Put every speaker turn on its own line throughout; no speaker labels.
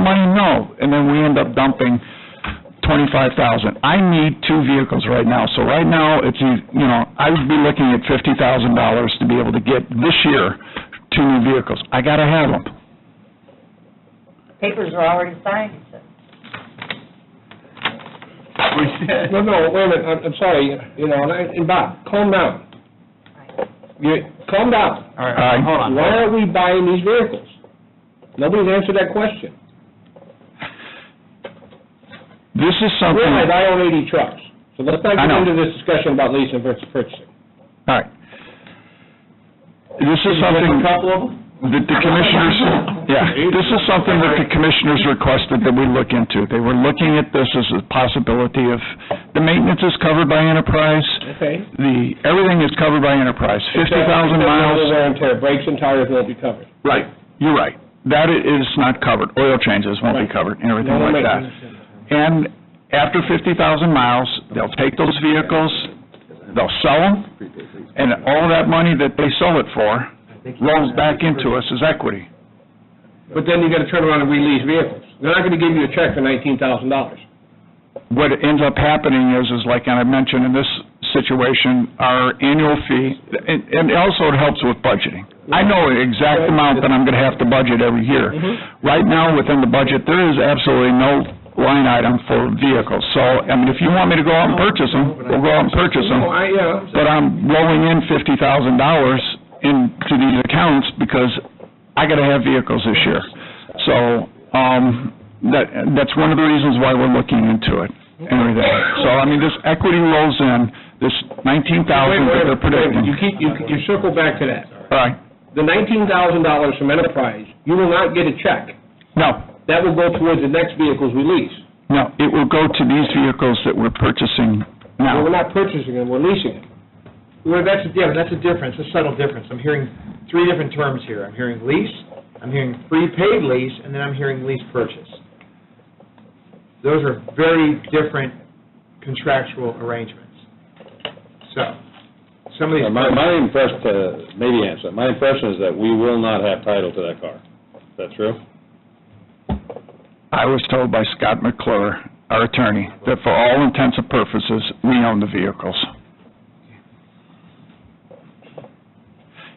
money? No. And then we end up dumping twenty-five thousand. I need two vehicles right now, so right now, it's, you you know, I would be looking at fifty thousand dollars to be able to get this year two new vehicles. I gotta have them.
Papers were already signed, he said.
No, no, wait a minute, I'm, I'm sorry, you know, and I- and Bob, calm down. You, calm down.
All
Uh,
right, hold on.
Why are we buying these vehicles? Nobody's answered that question.
This is something.
Realize I own eighty trucks, so let's not
Hmm. I
get
know.
into this discussion about leasing versus purchasing.
All right. This is something that the commissioners, yeah, this is something that the commissioners requested that we look into. They were looking at this as a possibility of, the maintenance is covered by enterprise,
Okay.
the, everything is covered by enterprise, fifty thousand
Except- except
miles.
Wear and tear, brakes and tires won't be covered.
Right, you're right. That i- is not covered. Oil changes won't be
Right.
covered and everything
No,
like
wait.
that. And after fifty thousand miles, they'll take those vehicles, they'll sell them, and all that money that they sell it for rolls back into us as equity.
But then you gotta turn around and release vehicles. They're not gonna give you a check for nineteen thousand dollars.
What ends up happening is, is like I mentioned in this situation, our annual fee, and, and also it helps with budgeting. I know the exact amount that I'm gonna have to budget every year. Right now, within the budget, there is absolutely no line item for vehicles. So, I mean, if you want me to go out and purchase them, we'll go out and purchase them.
Oh, I, yeah,
But I'm rolling in fifty thousand dollars into these accounts because I gotta have vehicles this year. So, um, that, that's one of the reasons why we're looking into it and everything. So, I mean, this equity rolls in, this nineteen
Wait,
thousand
wait,
that they're
wait. You
predicting.
keep, you, you circle back to that.
All right,
The nineteen thousand dollars from Enterprise, you will not get a check.
no,
That will go towards the next vehicles we lease.
no, it will go to these vehicles that we're purchasing
Well,
now.
We're not purchasing them, we're leasing them.
Well, that's, yeah, that's a difference, a subtle difference. I'm hearing three different terms here. I'm hearing lease, I'm hearing prepaid lease, and then I'm hearing lease purchase. Those are very different contractual arrangements. So, some of these.
Yeah, My, my impression, uh, maybe answer, my impression is that we will not have title to that car. Is that true?
I was told by Scott McClure, our attorney, that for all intents and purposes, we own the vehicles.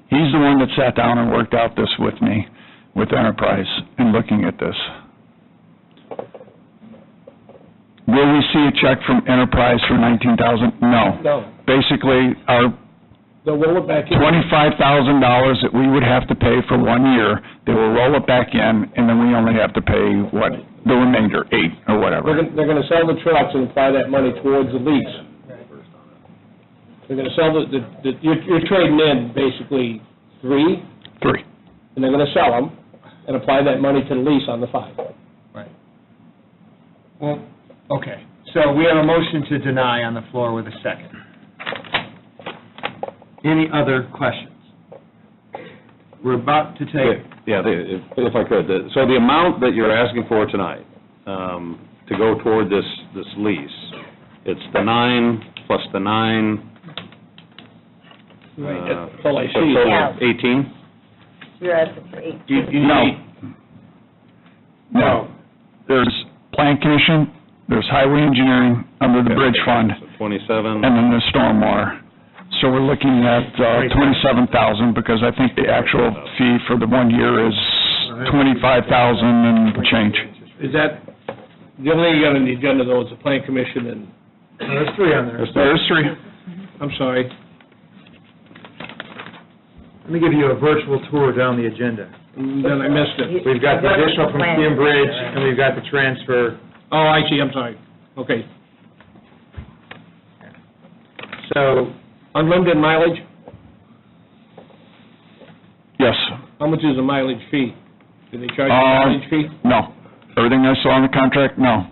He's the one that sat down and worked out this with me, with Enterprise, in looking at this. Will we see a check from Enterprise for nineteen thousand? No.
No,
Basically, our
they'll roll it back in.
twenty-five thousand dollars that we would have to pay for one year, they will roll it back in, and then we only have to pay, what, the remainder, eight, or
They're
whatever.
gonna, they're gonna sell the trucks and apply that money towards the lease. They're gonna sell the, the, the- you're, you're trading in basically three,
Three.
and they're gonna sell them and apply that money to the lease on the five.
Well, okay, so we have a motion to deny on the floor with a second. Any other questions? We're about to take,
Yeah, the- if, if I could, the- so the amount that you're asking for tonight, um, to go toward this, this lease, it's the nine plus the nine.
Right,
uh,
that's all I
so
see.
total
Yeah.
Eighteen?
You're asking for eight.
You- you
No.
need-
No. There's plan commission, there's highway engineering, under the bridge fund,
so
and
Twenty-seven.
then there's stormwater. So we're looking at, uh, twenty-seven thousand, because I think the actual fee for the one year is twenty-five thousand and change.
Is that, the only thing you got on the agenda though is the plan commission and,
Oh, there's three on there.
There's three.
I'm sorry,
Let me give you a virtual tour down the agenda.
then I missed it.
We've got the additional from Skin Bridge, and we've got the transfer.
Oh, I see, I'm sorry. Okay.
So,
Unlimited mileage,
Yes.
how much is the mileage fee? Do they charge you
Uh,
a mileage fee?
No. Everything I saw in the contract, no.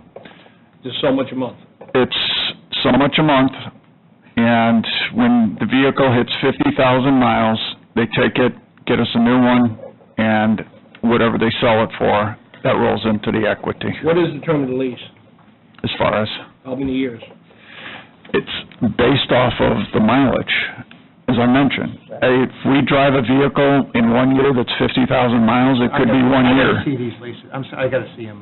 Just so much a month.
it's so much a month, and when the vehicle hits fifty thousand miles, they take it, get us a new one, and whatever they sell it for, that rolls into the equity,
What is the term of the lease?
as far as,
How many years?
it's based off of the mileage, as I mentioned. If we drive a vehicle in one year that's fifty thousand miles, it could be one year.
I gotta see these leases, I'm sorry, I gotta see them.